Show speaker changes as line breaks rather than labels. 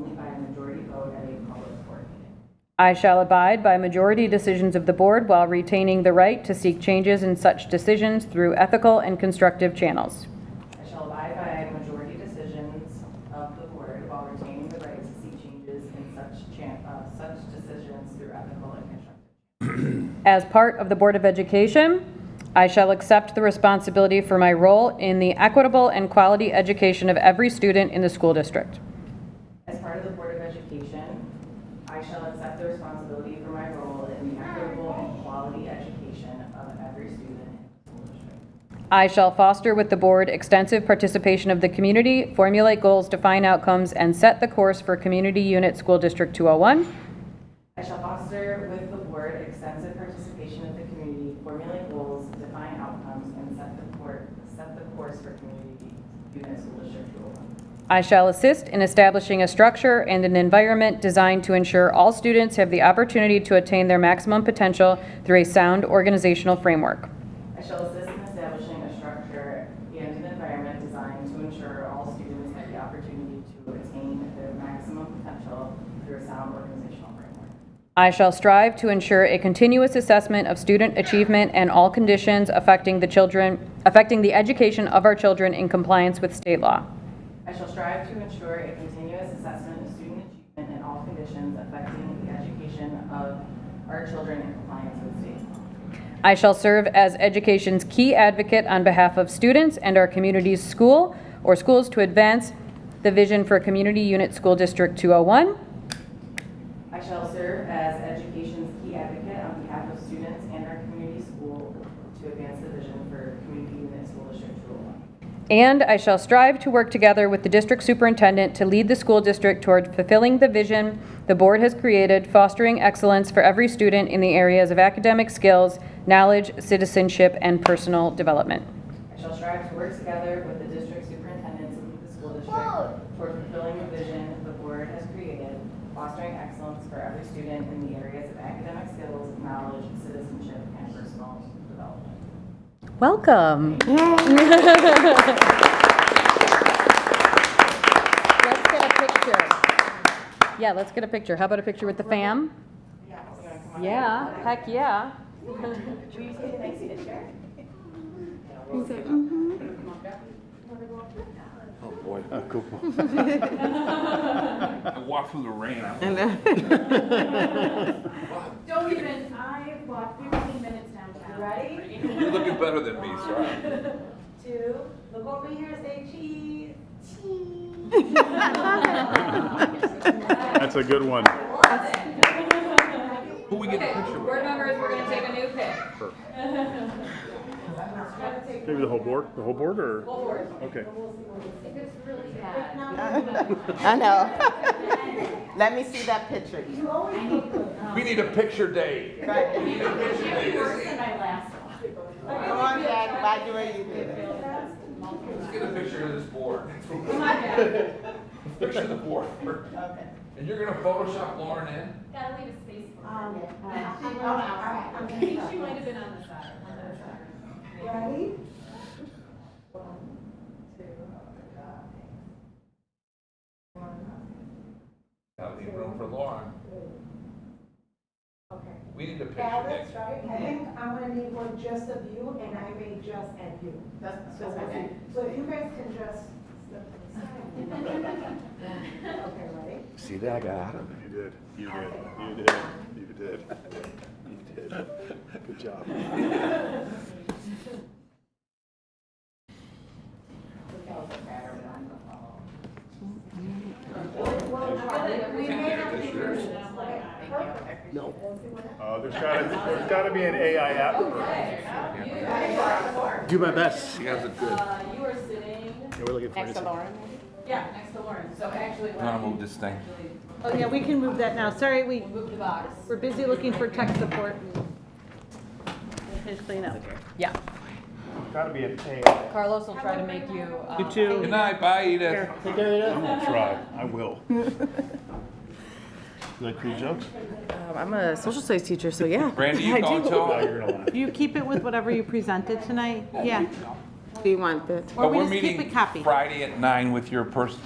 majority vote at a public board meeting.
I shall abide by majority decisions of the board while retaining the right to seek changes in such decisions through ethical and constructive channels.
I shall abide by majority decisions of the board while retaining the right to seek changes in such chan, uh, such decisions through ethical and constructive.
As part of the Board of Education, I shall accept the responsibility for my role in the equitable and quality education of every student in the school district.
As part of the Board of Education, I shall accept the responsibility for my role in the equitable and quality education of every student in the school district.
I shall foster with the board extensive participation of the community, formulate goals, define outcomes, and set the course for Community Unit School District 201.
I shall foster with the board extensive participation of the community, formulate goals, define outcomes, and set the court, set the course for community unit school district two oh one.
I shall assist in establishing a structure and an environment designed to ensure all students have the opportunity to attain their maximum potential through a sound organizational framework.
I shall assist in establishing a structure and an environment designed to ensure all students have the opportunity to attain their maximum potential through a sound organizational framework.
I shall strive to ensure a continuous assessment of student achievement and all conditions affecting the children, affecting the education of our children in compliance with state law.
I shall strive to ensure a continuous assessment of student achievement in all conditions affecting the education of our children in compliance with state law.
I shall serve as education's key advocate on behalf of students and our community's school or schools to advance the vision for Community Unit School District 201.
I shall serve as education's key advocate on behalf of students and our community school to advance the vision for community unit school district 201.
And I shall strive to work together with the district superintendent to lead the school district toward fulfilling the vision the board has created, fostering excellence for every student in the areas of academic skills, knowledge, citizenship, and personal development.
I shall strive to work together with the district superintendent to lead the school district toward fulfilling the vision the board has created, fostering excellence for every student in the areas of academic skills, knowledge, citizenship, and personal development.
Welcome. Let's get a picture. Yeah, let's get a picture. How about a picture with the fam?
You wanna come on up?
Yeah, heck yeah.
Will you take a nice picture?
Oh, boy.
Oh, cool.
I walked through the rain.
Don't even, I walked 15 minutes downtown.
Ready?
You're looking better than me, sorry.
Two, look over here, say cheese.
That's a good one.
Who we get the picture with?
members, we're gonna take a new pic.
Maybe the whole board, the whole board or? Okay.
I know. Let me see that picture.
We need a picture day.
Right.
We need a picture day.
Come on, Jack, by the way you did it.
Let's get a picture of this board. Picture the board. And you're gonna Photoshop Lauren in?
Gotta leave a space for her.
Um, Ready?
I think she might have been on the side. on the side.
Gotta leave room for Lauren. We need a picture day.
right? I think I'm gonna need one just of you, and I may just add you.
That's,
So
that's
we'll
okay.
see. So if you guys can just step to the side. Okay, ready?
See that, I got out of it. You did, you did, you did, you did, you did. Good job.
We may not be version of like.
Uh, there's gotta, there's gotta be an AI app for Do my best.
You guys look good.
Uh, you are sitting,
Yeah, we're looking for it.
yeah, next to Lauren, so actually.
I'm gonna move this thing.
Oh, yeah, we can move that now. Sorry, we,
Move the box.
we're busy looking for tech support. Finish cleaning up.
Yeah.
Gotta be an AI.
Carlos will try to make you. You um,
Good night, bye Edith.
I'm gonna try, I will. You like cool jokes?
I'm a social studies teacher, so yeah.
Brandy, you going
Oh,
to?
you're gonna laugh.
You keep it with whatever you presented tonight? Yeah.
Do you want that?
Or
But
we
we're
just keep
meeting
a copy.
Friday at nine with your person,